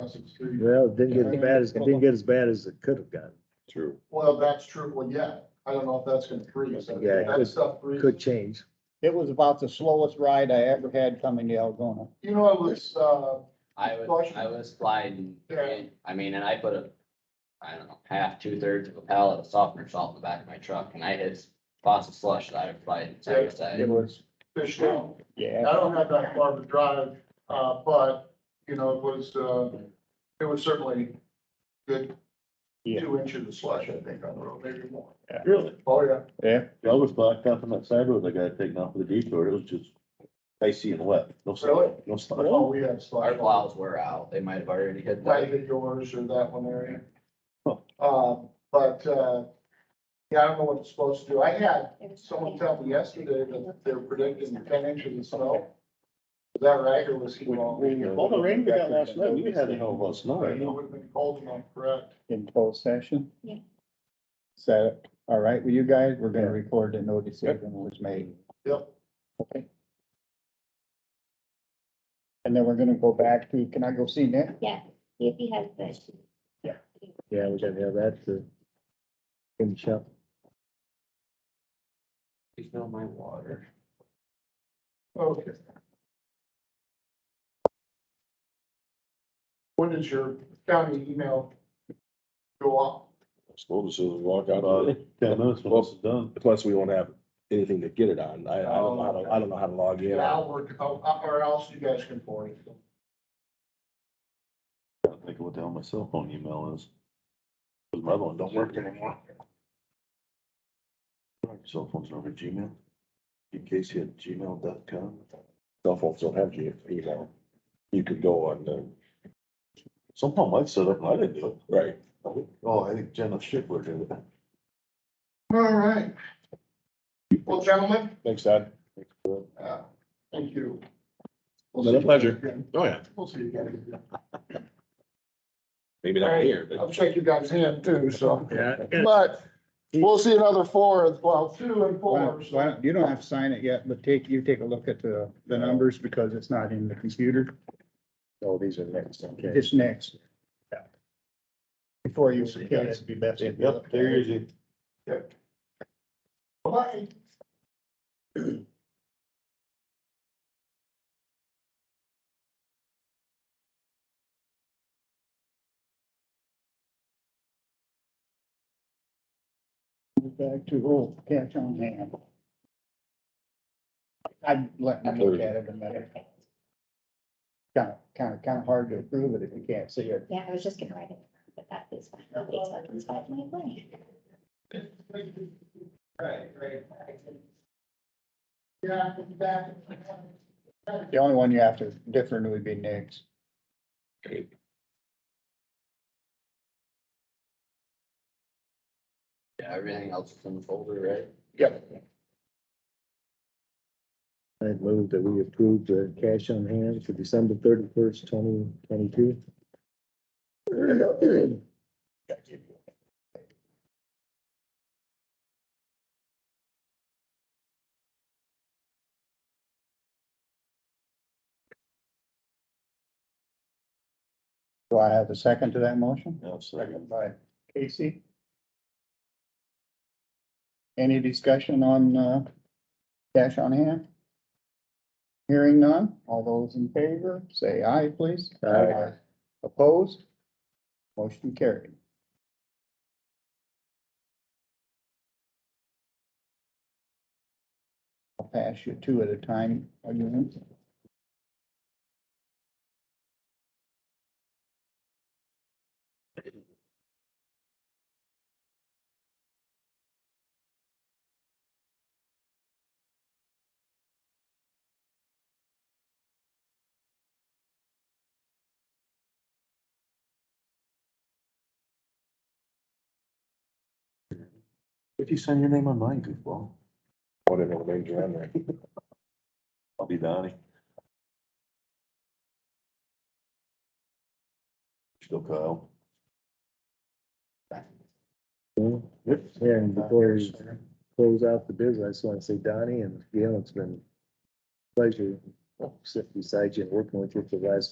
across the street. Well, it didn't get as bad as, it didn't get as bad as it could have gotten. True. Well, that's true, well, yeah, I don't know if that's gonna freeze, Yeah, it that could- stuff freezes. Could change. It was about the slowest ride I ever had coming to Algona. You know, it was, uh, I was, Caution. I was sliding, Yeah. I mean, and I put a, I don't know, half, two thirds of a pallet of softener salt in the back of my truck and I hit faucet slush that I was sliding side to It side. was, fish down. I yeah, don't have that far to drive, uh, but, you know, it was, uh, it was certainly good. Yeah. Two inches of slush, I think, on the road, maybe more. Really? Oh, yeah. yeah. I was blacked up on that side road I got taken off for the detour. It was just icy and wet. No Really? snow, no Oh, snow. we had Our slush. plows were out. They might have already hit Might have that. been yours or that one area. Huh. Uh, but, uh, yeah, I don't know what it's supposed to do. I had someone tell me yesterday that they're predicting ten inches of snow. Is that right, or was he wrong? All the rain we got last night, we had a hell of a lot of snow. It would have been cold enough, correct? In closed session? Yeah. Is that all right with you guys? We're gonna record that no decision was made. Yep. Okay. And then we're gonna go back to, can I go see Nick? Yeah, if he has the. Yeah, we gotta have that to. In the shop. You smell my water. Okay. When does your county email go up? School decisions, walk out of About it. ten minutes when this is done. Plus, we won't have anything to get it on. I, I don't Oh, know how to, I don't know how to log in. Now, or, uh, or else you guys can forward it. I'm thinking what the hell my cell phone email is. Cause my other one don't work anymore. Cell phone's over Gmail. In case you had gmail.com. Cell phones don't have G- email. You could go on the, Somehow mine set up and I didn't do it. right, Oh, I think Jenna Shipler did it. All right. Well, gentlemen, thanks, Todd. uh, thank you. It's been a pleasure. Again, Oh, yeah, We'll see you again. maybe not here, but. I'll shake you guys' hand too, so. Yeah. But we'll see another four, well, two and four. so- Why don't- You don't have to sign it yet, but take, you take a look at the, the numbers because it's not in the computer. Oh, these are next, okay. It's next. Before you. Yeah, that'd be best. Yep, there is it. Bye. Back to, oh, catch on hand. I'd let them look at it a minute. Kind of, kind of, kind of hard to approve it if you can't see it. Yeah, I was just gonna write it, but that is fine. Okay, so that's fine, my plan. Right, right. Yeah, back. The only one you have to different would be Nick's. Yeah, everything else is in the folder, right? I move that we approve the cash on hand for December thirty-first, twenty twenty-two. Do I have a second to that motion? Yeah, so. by Casey. Any discussion on, uh, cash on hand? Hearing none, all those in favor, say aye, please. Aye. Opposed? Motion carried. I'll pass you two at a time, are you in? If you sign your name on mine, goofball. Whatever the names are on there. I'll be Donnie. Still Kyle. Yep. And before you close out the business, I just wanna say Donnie and Gail, it's been a pleasure sitting beside you and working with you for the last